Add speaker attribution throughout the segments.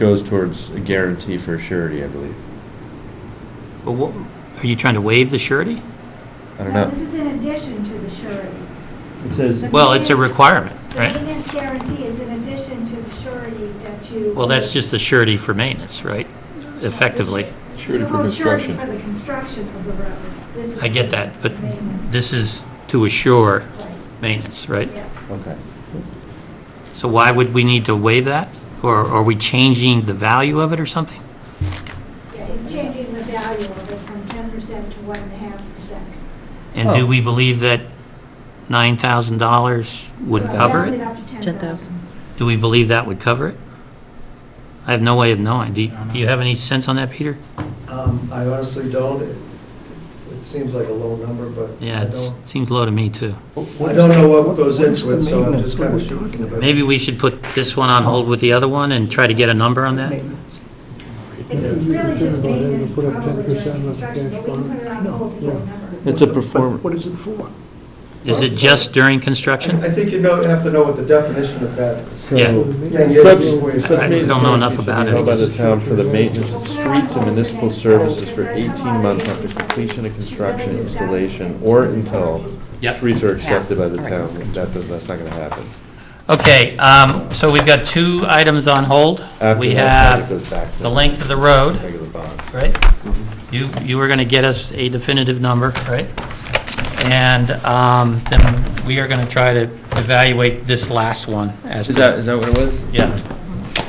Speaker 1: goes towards a guarantee for surety, I believe.
Speaker 2: But what, are you trying to waive the surety?
Speaker 1: I don't
Speaker 3: No,
Speaker 1: know.
Speaker 3: This is in addition to the surety.
Speaker 4: It says,
Speaker 2: Well, it's a requirement,
Speaker 3: The
Speaker 2: right?
Speaker 3: maintenance guarantee is in addition to the surety that you.
Speaker 2: Well, that's just the surety for maintenance, right? Effectively.
Speaker 5: Surety for
Speaker 3: Well,
Speaker 5: construction.
Speaker 3: Surety for the construction of the road. This is
Speaker 2: I get
Speaker 3: for
Speaker 2: that, but
Speaker 3: maintenance.
Speaker 2: this is to assure
Speaker 3: Right,
Speaker 2: maintenance, right?
Speaker 3: Yes.
Speaker 1: Okay.
Speaker 2: So why would we need to waive that? Or are we changing the value of it or something?
Speaker 3: Yeah, he's changing the value of it from ten percent to one and a half percent.
Speaker 2: And do
Speaker 1: Oh.
Speaker 2: we believe that $9,000 would cover it?
Speaker 3: Ten thousand.
Speaker 2: Do we believe that would cover it? I have no way of knowing. Do you do you have any sense on that, Peter?
Speaker 6: Um, I honestly don't. It- It seems like a low number, but
Speaker 2: Yeah,
Speaker 6: I
Speaker 2: it
Speaker 6: don't,
Speaker 2: seems low to me, too.
Speaker 6: I don't know what goes into it, so I'm just kind of shooting. about it.
Speaker 2: Maybe we should put this one on hold with the other one and try to get a number on that?
Speaker 3: It's really just maintenance, probably during construction, but we can put it on hold to get a number.
Speaker 1: It's a perform,
Speaker 4: what is it for?
Speaker 2: Is it just during construction?
Speaker 6: I think you know, have to know what the definition of that.
Speaker 2: Yeah.
Speaker 6: Yeah,
Speaker 1: Such, such
Speaker 2: I
Speaker 1: maintenance
Speaker 2: don't know enough
Speaker 1: guarantee shall
Speaker 2: about
Speaker 1: be
Speaker 2: it, I
Speaker 1: held by the
Speaker 2: guess.
Speaker 1: town for the maintenance of streets and municipal services for 18 months after completion of construction, installation, or until
Speaker 2: Yep.
Speaker 1: streets are accepted by the
Speaker 7: Pass. All
Speaker 1: town.
Speaker 7: right.
Speaker 1: That, does- that's not gonna happen.
Speaker 2: Okay, um, so we've got two items on hold.
Speaker 1: After
Speaker 2: We
Speaker 1: that, it
Speaker 2: have
Speaker 1: goes back to
Speaker 2: the length of the road,
Speaker 1: Regular bond.
Speaker 2: right? You, you were going to get us a definitive number, right? And um, then we are going to try to evaluate this last one as
Speaker 1: Is
Speaker 2: to,
Speaker 1: that, is that what it was?
Speaker 2: yeah.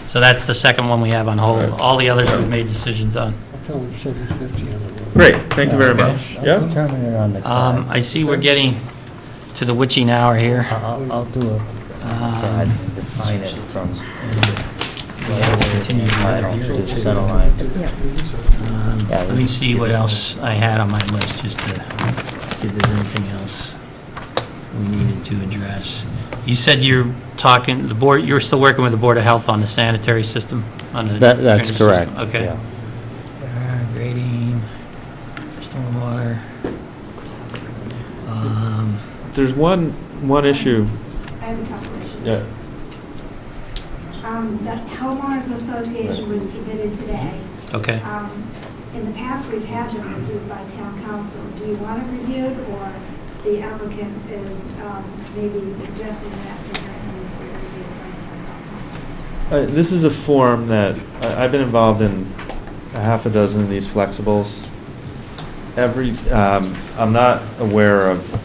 Speaker 2: So that's the second one we have on hold. All the others we've made decisions on.
Speaker 1: Great, thank you very
Speaker 2: Okay.
Speaker 1: much. Yeah?
Speaker 7: Terminator on the
Speaker 2: Um, I see we're getting to the witching hour here.
Speaker 7: Uh, I'll, I'll do a,
Speaker 2: Um,
Speaker 7: God, define it from.
Speaker 2: continue the other
Speaker 7: Lateral
Speaker 2: hearing.
Speaker 7: to center line.
Speaker 2: Um,
Speaker 7: Yeah,
Speaker 2: Let
Speaker 7: we-
Speaker 2: me see what else I had on my list, just to, see if there's anything else we needed to address. You said you're talking, the board, you're still working with the Board of Health on the sanitary system? on the
Speaker 7: That, that's
Speaker 2: drainage
Speaker 7: correct.
Speaker 2: system, Okay.
Speaker 7: yeah.
Speaker 2: Uh, Grading, stormwater. um,
Speaker 1: There's one, one issue.
Speaker 3: I have a couple issues.
Speaker 1: Yeah.
Speaker 3: Um, The homeowners association was submitted today.
Speaker 2: Okay.
Speaker 3: Um, In the past, we've had them reviewed by town council. Do you want it reviewed, or the applicant is um, maybe suggesting that it doesn't need to be reviewed by town council?
Speaker 1: Uh, This is a form that, I- I've been involved in a half a dozen of these flexibles. Every, um, I'm not aware of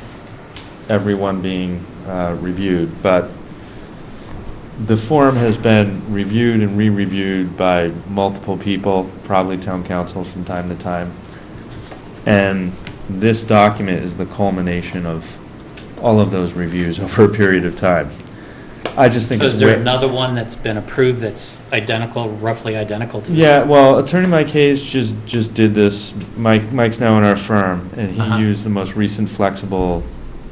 Speaker 1: everyone being uh, reviewed, but the form has been reviewed and re-reviewed by multiple people, probably town councils from time to time. And this document is the culmination of all of those reviews over a period of time. I just think
Speaker 2: So
Speaker 1: it's.
Speaker 2: is there
Speaker 1: wa-
Speaker 2: another one that's been approved that's identical, roughly identical to this?
Speaker 1: Yeah, well, attorney Mike Hayes just, just did this. Mike, Mike's now in our firm, and
Speaker 2: Uh-huh.
Speaker 1: he used the most recent flexible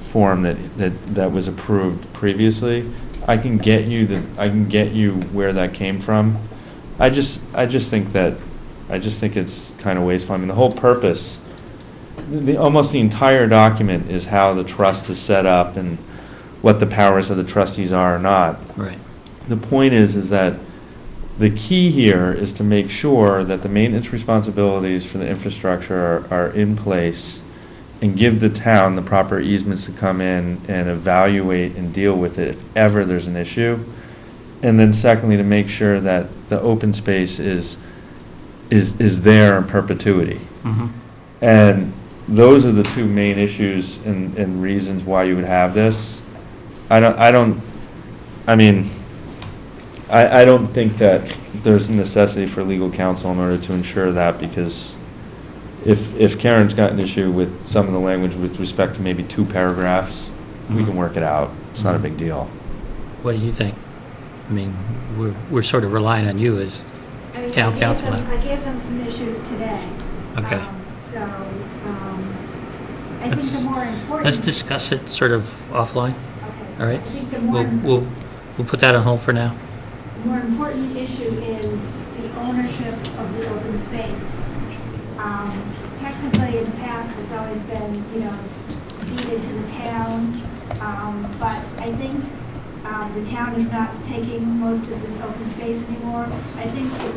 Speaker 1: form that, that, that was approved previously. I can get you the, I can get you where that came from. I just, I just think that, I just think it's kind of wasteful. I mean, the whole purpose, the- the, almost the entire document is how the trust is set up and what the powers of the trustees are or not
Speaker 2: Right.
Speaker 1: the point is, is that the key here is to make sure that the maintenance responsibilities for the infrastructure are, are in place and give the town the proper easements to come in and evaluate and deal with it if ever there's an issue. And then secondly, to make sure that the open space is, is, is there in perpetuity.
Speaker 2: Mhm.
Speaker 1: And those are the two main issues and, and reasons why you would have this. I don't, I don't, I mean, I, I don't think that there's a necessity for legal counsel in order to ensure that, because if, if Karen's got an issue with some of the language with respect to maybe two paragraphs, we can work it out. It's not a big deal.
Speaker 2: What do you think? I mean, we're, we're sort of relying on you as,
Speaker 3: I mean, I
Speaker 2: Town
Speaker 3: gave
Speaker 2: council.
Speaker 3: them- I gave them some issues today.
Speaker 2: Okay.
Speaker 3: Um, So, um, I think
Speaker 2: Let's-
Speaker 3: the more important.
Speaker 2: let's discuss it sort of offline,
Speaker 3: Okay.
Speaker 2: all
Speaker 3: I
Speaker 2: right?
Speaker 3: think the
Speaker 2: We'll,
Speaker 3: more
Speaker 2: we'll, we'll put that on hold for now.
Speaker 3: The more important issue is the ownership of the open space. Um, Technically, in the past, it's always been, you know, deeded to the town, um, but I think Um, The town is not taking most of this open space anymore. I think the